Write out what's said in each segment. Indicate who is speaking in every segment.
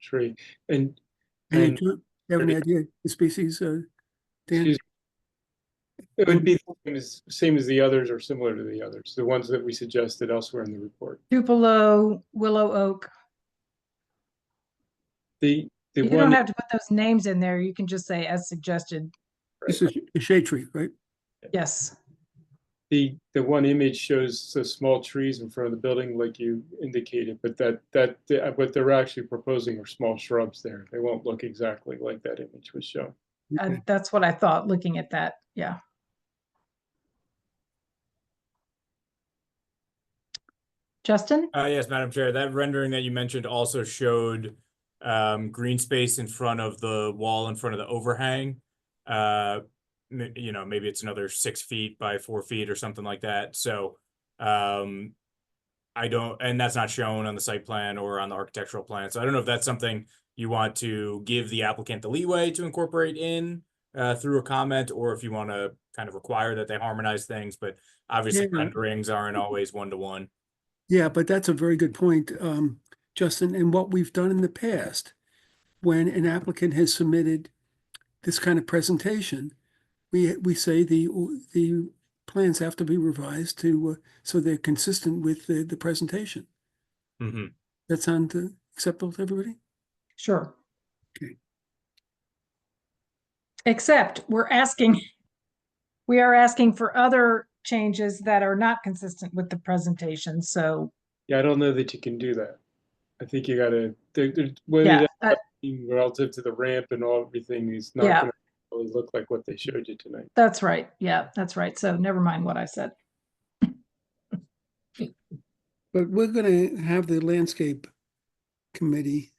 Speaker 1: tree. And
Speaker 2: Any,
Speaker 1: And-
Speaker 2: do you have any idea the species, uh, Dan?
Speaker 1: Excuse- it would be the same as, same as the others or similar to the others, the ones that we suggested elsewhere in the report.
Speaker 3: Tupelo, Willow Oak.
Speaker 1: The, the
Speaker 3: You don't
Speaker 1: one,
Speaker 3: have to put those names in there. You can just say as suggested.
Speaker 2: This is a shade tree, right?
Speaker 3: Yes.
Speaker 1: the, the one image shows the small trees in front of the building like you indicated, but that, that, uh, what they're actually proposing are small shrubs there. They won't look exactly like that image was shown.
Speaker 3: I-
Speaker 2: Okay.
Speaker 3: That's what I thought, looking at that. Yeah. Justin?
Speaker 4: Uh, yes, Madam Chair, that rendering that you mentioned also showed um, green space in front of the wall, in front of the overhang. Uh, m- you know, maybe it's another six feet by four feet or something like that, so um, I don't, and that's not shown on the site plan or on the architectural plan, so I don't know if that's something you want to give the applicant the leeway to incorporate in uh, through a comment, or if you want to kind of require that they harmonize things, but obviously
Speaker 2: Yeah.
Speaker 4: renderings aren't always one-to-one.
Speaker 2: Yeah, but that's a very good point, um, Justin, and what we've done in the past, when an applicant has submitted this kind of presentation, we, we say the, the plans have to be revised to, uh, so they're consistent with the, the presentation.
Speaker 4: hmm
Speaker 2: That sound uh, acceptable to everybody?
Speaker 3: Sure.
Speaker 2: Okay.
Speaker 3: Except we're asking, we are asking for other changes that are not consistent with the presentation. So,
Speaker 1: Yeah, I don't know that you can do that. I think you gotta, there, there, whether
Speaker 3: yeah,
Speaker 1: that
Speaker 3: uh,
Speaker 1: being relative to the ramp and all, everything is not
Speaker 3: Yeah.
Speaker 1: gonna really look like what they showed you tonight.
Speaker 3: that's right. Yeah, that's right. So never mind what I said.
Speaker 2: But we're gonna have the landscape committee,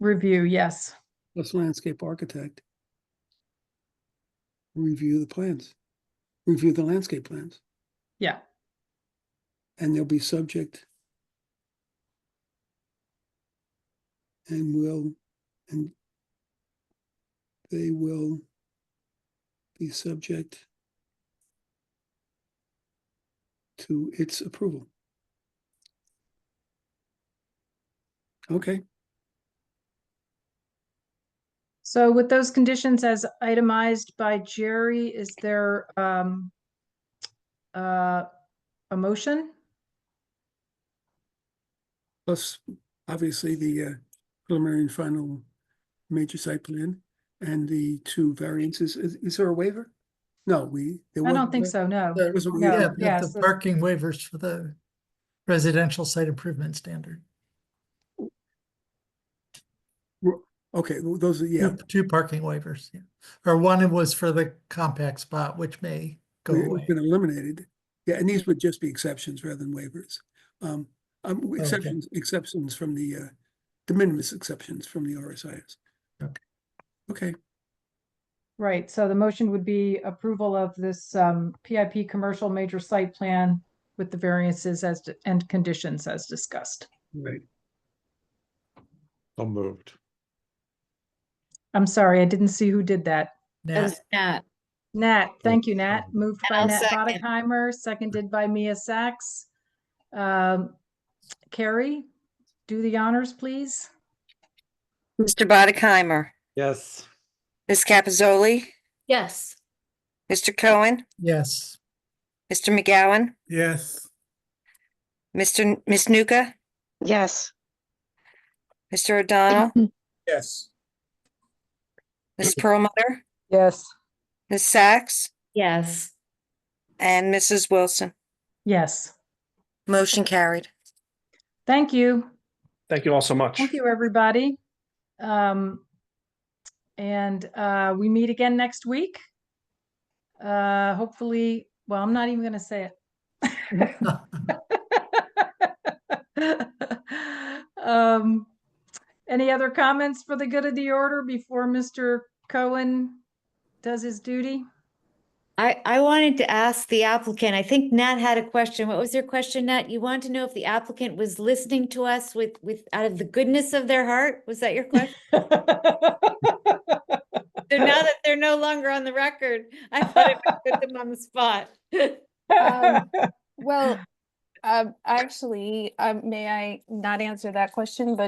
Speaker 3: Review, yes.
Speaker 2: plus landscape architect. Review the plans, review the landscape plans,
Speaker 3: Yeah,
Speaker 2: and they'll be subject. And will, and they will be subject to its approval. Okay.
Speaker 3: so with those conditions as itemized by Jerry, is there um uh a motion?
Speaker 2: Plus, obviously, the uh, preliminary and final major site plan and the two variances. Is, is there a waiver? No, we. there
Speaker 3: I
Speaker 2: was-
Speaker 3: don't think so, no.
Speaker 2: There was a
Speaker 3: No,
Speaker 5: Yeah,
Speaker 2: waiver.
Speaker 5: but
Speaker 3: yes,
Speaker 5: the
Speaker 3: the-
Speaker 5: parking waivers for the residential site improvement standard.
Speaker 2: Okay, well, those are, yeah,
Speaker 5: Two- Two parking waivers, yeah. Or one was for the compact spot, which may go
Speaker 2: it's
Speaker 5: away.
Speaker 2: been eliminated. Yeah, and these would just be exceptions rather than waivers. Um, um,
Speaker 5: okay.
Speaker 2: exceptions, exceptions from the, uh, de minimis exceptions from the RSIS.
Speaker 5: Okay.
Speaker 2: Okay,
Speaker 3: Right, so the motion would be approval of this um PIP commercial major site plan with the variances as d- and conditions as discussed.
Speaker 2: right.
Speaker 6: So moved.
Speaker 3: I'm sorry, I didn't see who did that.
Speaker 7: That
Speaker 5: Now,
Speaker 7: was Nat.
Speaker 3: Nat, thank you, Nat.
Speaker 6: Second.
Speaker 3: Moved by
Speaker 7: I'll
Speaker 3: Nat
Speaker 7: second.
Speaker 3: Bodikheimer, seconded by Mia Sacks. Um, Carrie, do the honors, please.
Speaker 8: Mr. Bodikheimer,
Speaker 6: Yes.
Speaker 8: Ms. Capizoli,
Speaker 7: Yes.
Speaker 8: Mr. Cohen,
Speaker 5: yes,
Speaker 8: Mr. McGowan,
Speaker 2: Yes.
Speaker 8: Mr. N- Ms. Nuka,
Speaker 9: Yes,
Speaker 8: Mr. O'Donnell,
Speaker 4: Yes.
Speaker 8: Ms. Perlmutter,
Speaker 3: Yes.
Speaker 8: Ms. Sacks,
Speaker 7: Yes.
Speaker 8: and Mrs. Wilson.
Speaker 3: Yes,
Speaker 8: Motion carried.
Speaker 3: thank you.
Speaker 10: Thank you all so much.
Speaker 3: Thank you, everybody. Um, and, uh, we meet again next week. Uh, hopefully, well, I'm not even gonna say it. Um, any other comments for the good of the order before Mr. Cohen does his duty?
Speaker 7: I, I wanted to ask the applicant, I think Nat had a question. What was your question, Nat? You wanted to know if the applicant was listening to us with, with, out of the goodness of their heart? Was that your question? So now that they're no longer on the record, I thought it would put them on the spot.
Speaker 11: Um, Well, um, actually, um, may I not answer that question, but